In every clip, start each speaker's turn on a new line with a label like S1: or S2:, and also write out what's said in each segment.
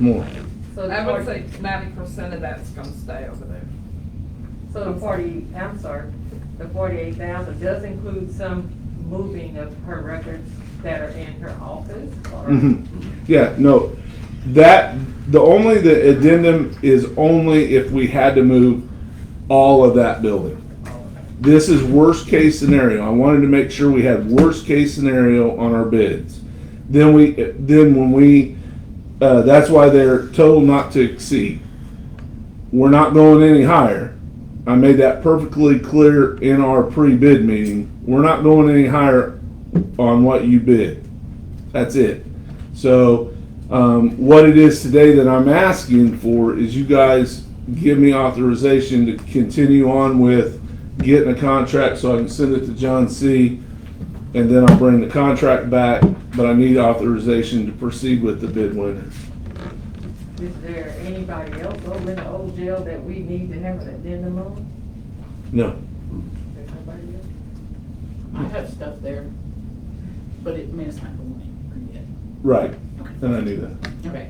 S1: More.
S2: So
S3: I would say
S2: the
S3: ninety percent of that's gonna stay over there.
S2: so the forty, I'm sorry, the forty-eight thousand does include some moving of her records that are in her office? or-
S1: Mhm. Yeah, no, that, the only, the addendum is only if we had to move all of that building. This is worst case scenario. I wanted to make sure we had worst case scenario on our bids. Then we, then when we, uh, that's why they're told not to exceed. We're not going any higher. I made that perfectly clear in our pre-bid meeting. We're not going any higher on what you bid. That's it. So, um, what it is today that I'm asking for is you guys give me authorization to continue on with getting a contract so I can send it to John C. And then I'll bring the contract back, but I need authorization to proceed with the bid winner.
S2: Is there anybody else over in the old jail that we need to have an addendum on?
S1: No.
S2: There's nobody else?
S4: I have stuff there, but it, I mean, it's not going yet.
S1: Right.
S4: Okay.
S1: And I knew that.
S4: Okay.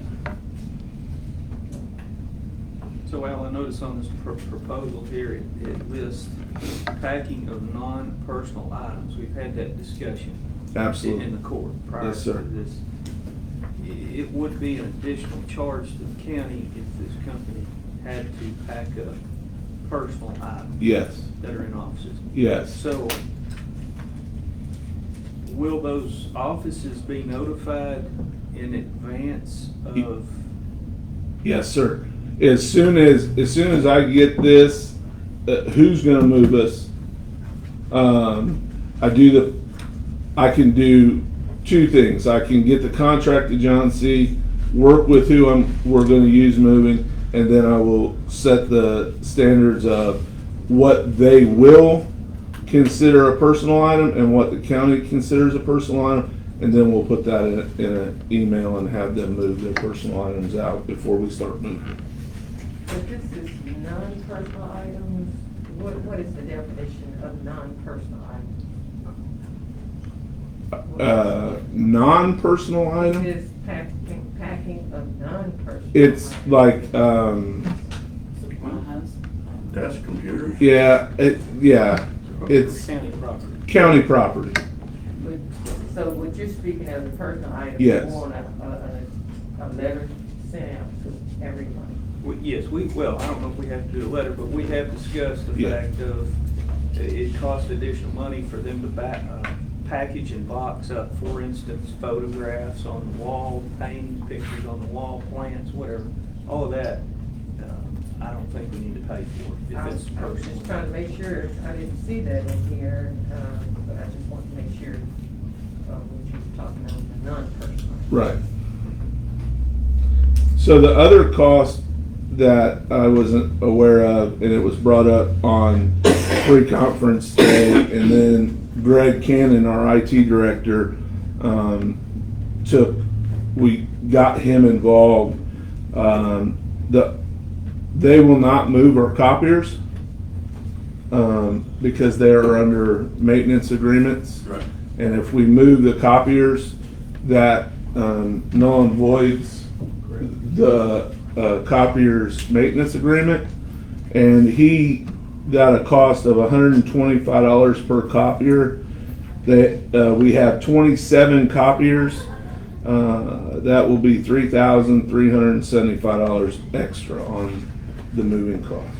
S5: So Al, I notice on this pr- proposal here, it- it lists packing of non-personal items. We've had that discussion in- in the
S1: Absolutely.
S5: court prior
S1: Yes,
S5: to
S1: sir.
S5: this. I- It would be an additional charge to the county if this company had to pack up personal items
S1: Yes.
S5: that are in offices.
S1: Yes.
S5: So will those offices be notified in advance
S1: Ye-
S5: of?
S1: Yes, sir. As soon as, as soon as I get this, uh, who's gonna move us? Um, I do the, I can do two things. I can get the contract to John C., work with who I'm, we're gonna use moving, and then I will set the standards of what they will consider a personal item and what the county considers a personal item. And then we'll put that in, a- in an email and have them move their personal items out before we start moving.
S2: But this is non-personal items, what, what is the definition of non-personal items?
S1: Uh, non-personal item,
S2: This packing, packing of non-personal.
S1: it's
S2: items.
S1: like, um,
S4: Supplies.
S6: That's computers.
S1: yeah, it, yeah, it's
S5: County property.
S1: county property.
S2: But- So what you're speaking of, the personal items?
S1: Yes.
S2: You want a, a, a, a letter sent out to everyone?
S5: We- Yes, we, well, I don't know if we have to do a letter, but we have discussed the
S1: Yeah.
S5: fact of i- it costs additional money for them to back, uh, package and box up, for instance, photographs on the wall, paintings, pictures on the wall, plants, whatever, all of that, um, I don't think we need to pay for
S2: I was, I
S5: if it's
S2: was just
S5: personal.
S2: trying to make sure, I didn't see that in here, um, but I just want to make sure, uh, what you were talking about, the non-personal.
S1: Right. So the other cost that I wasn't aware of, and it was brought up on pre-conference day, and then Greg Cannon, our IT director, um, took, we got him involved. Um, the, they will not move our copiers, um, because they are under maintenance agreements.
S6: Right.
S1: And if we move the copiers, that um, null and voids the uh, copier's maintenance agreement. And he got a cost of $125 per copier. That, uh, we have 27 copiers. Uh, That will be $3,375 extra on the moving cost.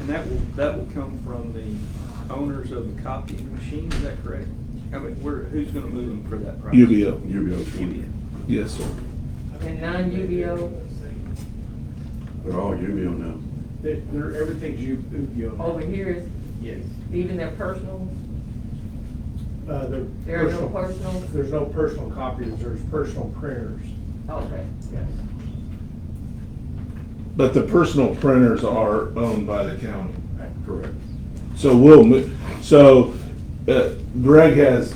S5: And that will, that will come from the owners of the copying machine, is that correct? I mean, where, who's gonna move them for that price?
S1: UBO,
S6: UBO
S5: UBO.
S6: twenty.
S1: yes, sir.
S2: And non-UBO,
S6: They're all UBO now.
S7: They're, they're, everything's you, you.
S2: over here is
S7: Yes.
S2: even their personal,
S7: Uh, they're.
S2: There are no
S7: personal-
S2: personals?
S7: There's no personal copies, there's personal printers.
S2: okay,
S7: Yes.
S1: But the personal printers are owned by the county.
S6: Correct.
S1: So we'll move, so uh, Greg has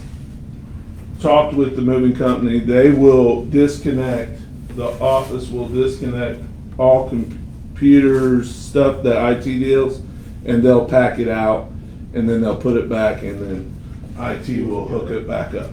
S1: talked with the moving company. They will disconnect, the office will disconnect all computers, stuff that IT deals, and they'll pack it out, and then they'll put it back, and then IT will hook it back up.